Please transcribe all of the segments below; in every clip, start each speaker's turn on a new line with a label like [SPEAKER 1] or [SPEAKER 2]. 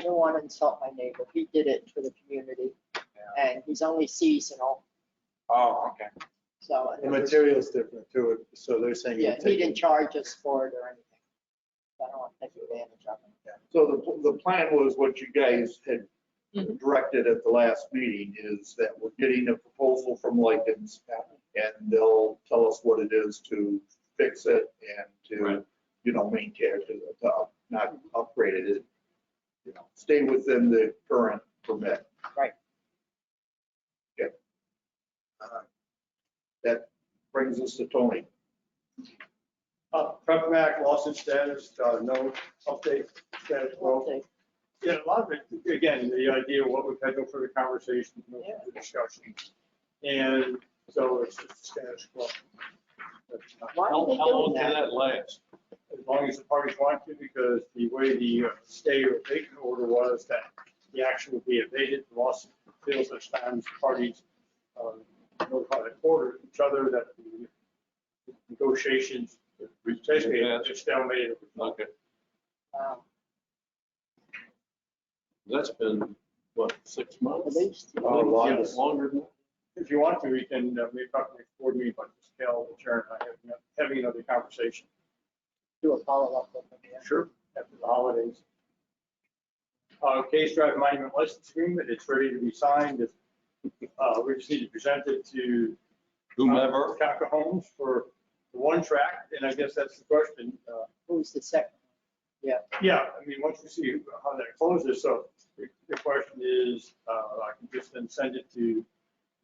[SPEAKER 1] I don't want to insult my neighbor. He did it for the community and he's only seasonal,
[SPEAKER 2] Oh, okay.
[SPEAKER 1] so.
[SPEAKER 3] The material's different too, so they're saying. you
[SPEAKER 1] Yeah, he
[SPEAKER 3] take-
[SPEAKER 1] didn't charge us for it or anything. So I don't want to take advantage of it.
[SPEAKER 4] So the, the plan was what you guys had directed at the last meeting is that we're getting a proposal from Lycans and they'll tell us what it is to fix it and to,
[SPEAKER 2] Right.
[SPEAKER 4] you know, maintain it, to- to up- not upgrade it. it, You know, stay within the current permit.
[SPEAKER 1] Right.
[SPEAKER 4] Okay. Uh, That brings us to Tony.
[SPEAKER 3] Uh, Prep Act, lawsuit status, uh, no update, status quo.
[SPEAKER 1] Okay.
[SPEAKER 3] Yeah, a lot of it, again, the idea of what we've had no further conversations, no
[SPEAKER 1] Yeah.
[SPEAKER 3] further discussion. And so it's just status quo. That's not-
[SPEAKER 1] Why are
[SPEAKER 3] How
[SPEAKER 1] they
[SPEAKER 3] how long
[SPEAKER 1] doing
[SPEAKER 3] can
[SPEAKER 1] that?
[SPEAKER 3] that last? As long as the parties want to, because the way the uh, stay or vacant order was that the action would be evaded, the lawsuit fails such times parties um, notify the court or each other that the negotiations, basically,
[SPEAKER 2] Yeah.
[SPEAKER 3] it's dominated.
[SPEAKER 2] Okay.
[SPEAKER 1] Wow,
[SPEAKER 2] That's been, what, six
[SPEAKER 1] At
[SPEAKER 2] months?
[SPEAKER 1] least,
[SPEAKER 2] I think,
[SPEAKER 4] Long.
[SPEAKER 2] yeah, Longer than.
[SPEAKER 3] If you want to, we can, uh, maybe talk to the board meeting, but just tell the chair and I have no- having another conversation
[SPEAKER 1] do a follow-up with them. yeah.
[SPEAKER 3] Sure. after the holidays. Uh, Case Drive Monument License Agreement, it's ready to be signed. Uh, We just need to present it to
[SPEAKER 2] Whomever.
[SPEAKER 3] Taka Homes for the one track, and I guess that's the question. Uh,
[SPEAKER 1] Who's the second?
[SPEAKER 3] Yeah, I mean, once we see how that closes, so the the question is, uh, I can just then send it to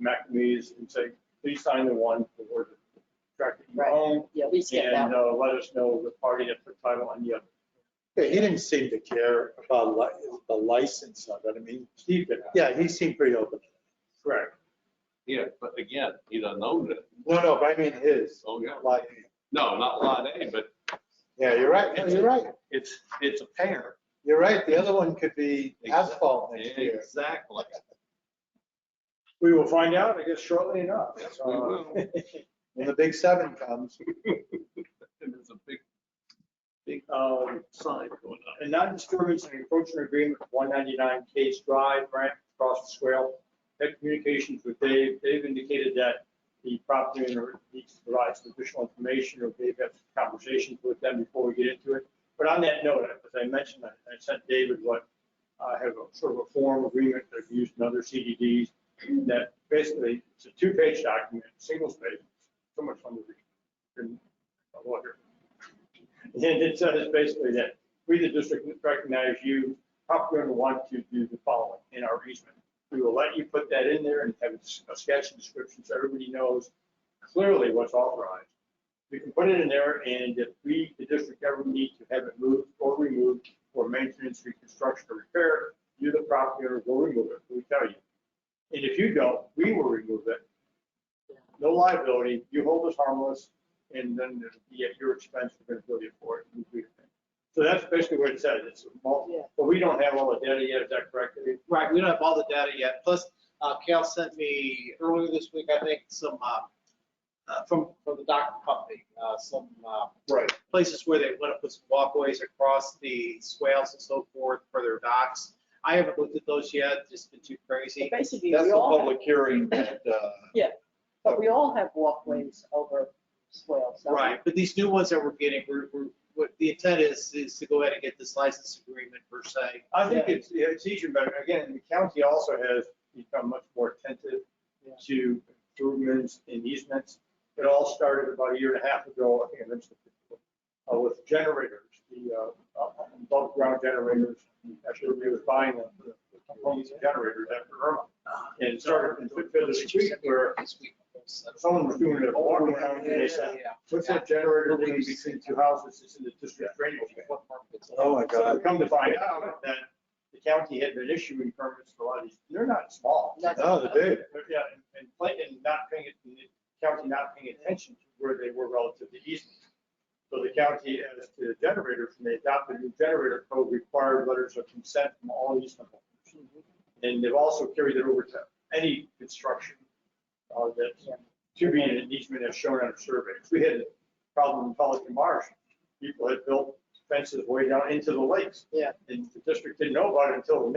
[SPEAKER 3] McNamee's and say, please sign the one for the track that you
[SPEAKER 1] Right.
[SPEAKER 3] own.
[SPEAKER 1] Yeah, at least get that.
[SPEAKER 3] And uh, let us know the party that put title on the other.
[SPEAKER 5] Yeah, he didn't seem to care about li- the license of it. I mean,
[SPEAKER 3] Steve did.
[SPEAKER 5] yeah, he seemed pretty open.
[SPEAKER 3] Correct.
[SPEAKER 2] Yeah, but again, he doesn't own it.
[SPEAKER 5] No, no, but I mean his.
[SPEAKER 2] Oh, yeah.
[SPEAKER 5] Like,
[SPEAKER 2] No, not Lot A, but
[SPEAKER 5] yeah, you're right. No, You're right.
[SPEAKER 2] it's, it's a pair.
[SPEAKER 5] You're right. The other one could be asphalt next year.
[SPEAKER 2] Exactly.
[SPEAKER 3] We will find out, I guess, shortly enough.
[SPEAKER 2] Yes, we will.
[SPEAKER 3] Uh,
[SPEAKER 5] When the big seven comes,
[SPEAKER 2] And There's a big
[SPEAKER 3] um,
[SPEAKER 2] sign going up.
[SPEAKER 3] A non-disturbance and encroachment agreement, 199 Case Drive, Brant, across the swale. Had communications with Dave. Dave indicated that the property owner needs to provide some additional information, or Dave had some conversations with them before we get into it. But on that note, as I mentioned, I I sent David what I have a sort of a form agreement that I've used in other CDDs that basically, it's a two-page document, single space, so much fun to read. And a lawyer. And it says basically that we, the district, recognize you, probably going to want to do the following in our easement. We will let you put that in there and have a sketch and description so everybody knows clearly what's authorized. We can put it in there and if we, the district, ever need to have it moved or removed for maintenance, reconstruction, or repair, you, the property owner, will remove it, we tell you. And if you don't, we will remove it. No liability, you hold us harmless, and then it'll be at your expense, we're gonna bill you for it. and we do it. So that's basically what it says, it's, a mul-
[SPEAKER 1] Yeah.
[SPEAKER 3] but we don't have all the data yet, is that correct? Dave?
[SPEAKER 6] Right, we don't have all the data yet. Plus, uh, Cal sent me earlier this week, I think, some, uh, uh, from, from the dock company, uh, some, uh,
[SPEAKER 4] Right.
[SPEAKER 6] places where they want to put some walkways across the swales and so forth for their docks. I haven't looked at those yet, just been too
[SPEAKER 1] But
[SPEAKER 6] crazy.
[SPEAKER 1] Basically,
[SPEAKER 4] That's
[SPEAKER 1] we
[SPEAKER 4] the
[SPEAKER 1] all, have-
[SPEAKER 4] public hearing that, uh,
[SPEAKER 1] but we all have walkways over swales. don't we?
[SPEAKER 6] Right, but these new ones that we're getting, we're, we're, what the intent is, is to go ahead and get this license agreement per se.
[SPEAKER 3] I think it's, yeah, it's easier, but again, the county also has become much more attentive
[SPEAKER 1] Yeah.
[SPEAKER 3] to improvements and easements. It all started about a year and a half ago, I think I mentioned it before, uh, with generators, the uh, above ground generators. Actually, we were buying them, the homes generators after Irma. And it started in Pittsfield Street where
[SPEAKER 6] This week.
[SPEAKER 3] someone was doing a walk around and they said, what's that generator doing between two houses? It's in the district drainage.
[SPEAKER 5] oh my
[SPEAKER 3] So
[SPEAKER 5] God.
[SPEAKER 3] I've come to find out that the county had been issuing permits for a lot of these, they're not small.
[SPEAKER 1] That's-
[SPEAKER 5] No, the big.
[SPEAKER 3] But Yeah, and- and Clayton not paying, it- the county not paying attention to where they were relative to easement. So the county, as to the generators, when they adopted the generator code, required letters of consent from all easement holders.
[SPEAKER 1] Mhm.
[SPEAKER 3] And they've also carried it over to any construction uh, that's to be in an easement as shown on a survey. We had a problem in Pelican Marsh. People had built fences way down into the lakes.
[SPEAKER 1] Yeah.
[SPEAKER 3] And the district didn't know about it until the